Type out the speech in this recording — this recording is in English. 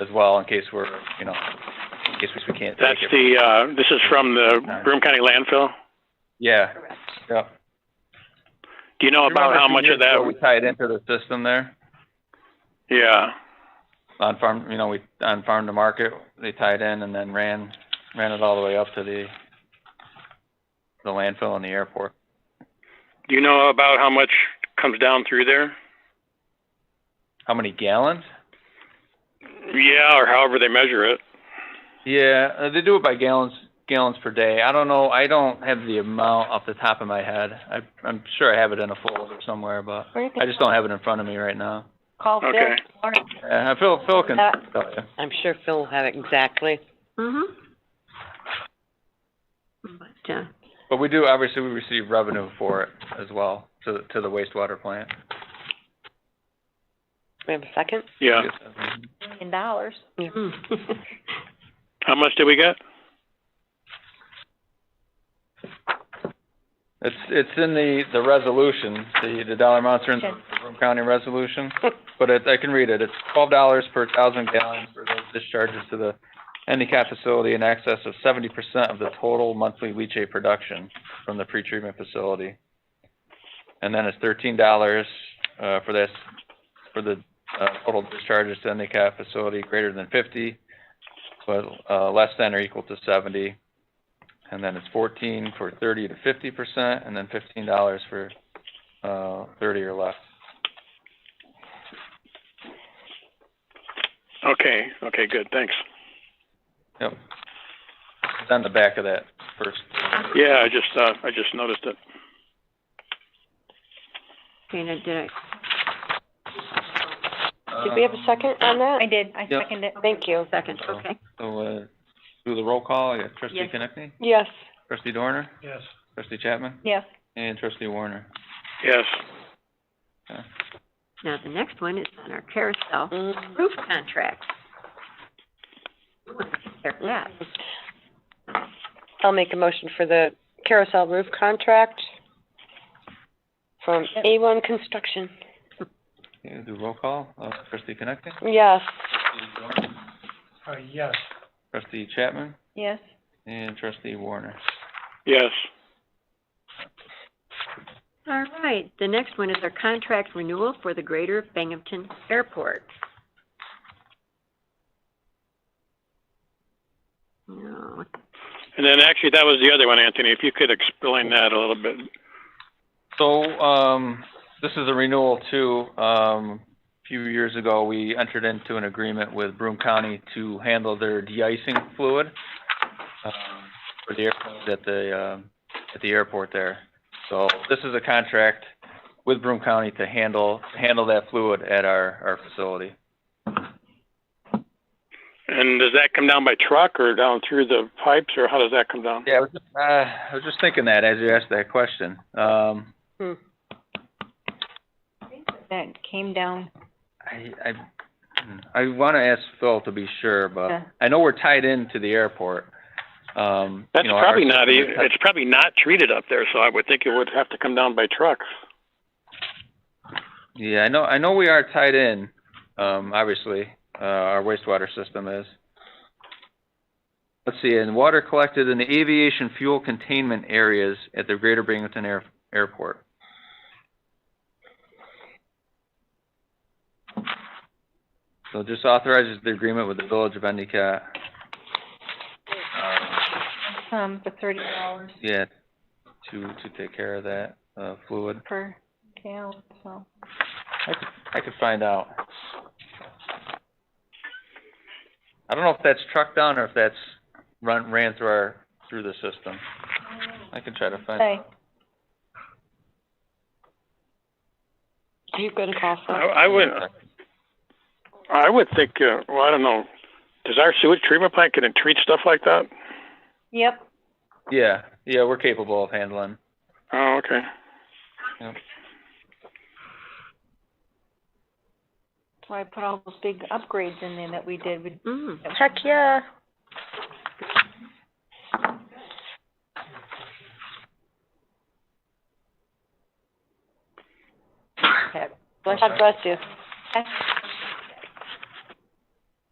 as well in case we're, you know, in case we can't take That's it. the, uh, this is from the Broome County landfill? Yeah, Correct. yeah. Do you know about Remember a how few much years of that, ago We tied into the system there yeah, on farm, you know, we, on farm to market, they tied in and then ran, ran it all the way up to the, the landfill and the airport. do you know about how much comes down through there? How many gallons? Yeah, or however they measure it. Yeah, uh, they do it by gallons, gallons per day. I don't know, I don't have the amount off the top of my head. I, I'm sure I have it in a folder somewhere, but Or you can I just don't have it in front of me right now. call Phil Okay. tomorrow. Uh, Phil, Phil can Uh, tell you. I'm sure Phil will have it exactly. Mm-hmm. But, uh, But we do, obviously, we receive revenue for it as well, to, to the wastewater plant. We have a second? Yeah. Million dollars. How much did we get? It's, it's in the, the resolution, the, the dollar amounts are in the Broome County resolution, but it, I can read it. It's twelve dollars per thousand gallons for those discharges to the handicap facility in excess of seventy percent of the total monthly leachate production from the pretreatment facility. And then it's thirteen dollars, uh, for this, for the, uh, total discharges to handicap facility greater than fifty, but, uh, less than or equal to seventy. And then it's fourteen for thirty to fifty percent, and then fifteen dollars for, uh, thirty or less. Okay, okay, good, thanks. Yep. It's on the back of that first. Yeah, I just, uh, I just noticed it. Dana, did I, Did we have a second on I that? did, I Yep. seconded it. Thank you. second, Uh, okay. So, uh, do the roll call, yeah, trustee Yes. Connectney, Yes. trustee Dorner, Yes. trustee Chapman, Yes, and trustee Warner. Yes, Now, the next one is on our carousel Mm-hmm. Mm. roof contracts. We want to take care of that. I'll make a motion for the carousel roof contract from Yep. A1 Construction. Okay, do roll call, uh, trustee Connectney, Yes. trustee Chapman, yes. and trustee Warner. yes, All right, the next one is our contract renewal for the Greater Binghamton Airport. No, and then actually, that was the other one, Anthony, if you could explain that a little bit. So, um, this is a renewal too. Um, a few years ago, we entered into an agreement with Broome County to handle their de-icing fluid, um, for the airplanes at the, um, at the airport there. So this is a contract with Broome County to handle, handle that fluid at our, our facility. And does that come down by truck or down through the pipes, or how does that come down? Yeah, I was, just- uh, I was just thinking that as you asked that question. Um, Hmm. That came down, I, I, I wanna ask Phil to be sure, Yeah. but I know we're tied into the airport. Um, That's you know, our probably not, system e is tied- it's probably not treated up there, so I would think it would have to come down by truck. Yeah, I know, I know we are tied in, um, obviously, uh, our wastewater system is. Let's see, and water collected in the aviation fuel containment areas at the Greater Binghamton Air, Airport. So just authorizes the agreement with the Village of Endicott. Uh, um, for thirty dollars Yeah, to, to take care of that, uh, fluid. per gallon, so. I could, I could find out. I don't know if that's trucked down or if that's run, ran through our, through the system. I can try to find. Hey, Are you going to call I, Phil? I would, I would think, uh, well, I don't know, does our sewage treatment plant, can it treat stuff like that? yep, Yeah, yeah, we're capable of handling. Oh, okay. that's why I put all those big upgrades in there that we did, we. mm, Heck, yeah. had- God bless you. That's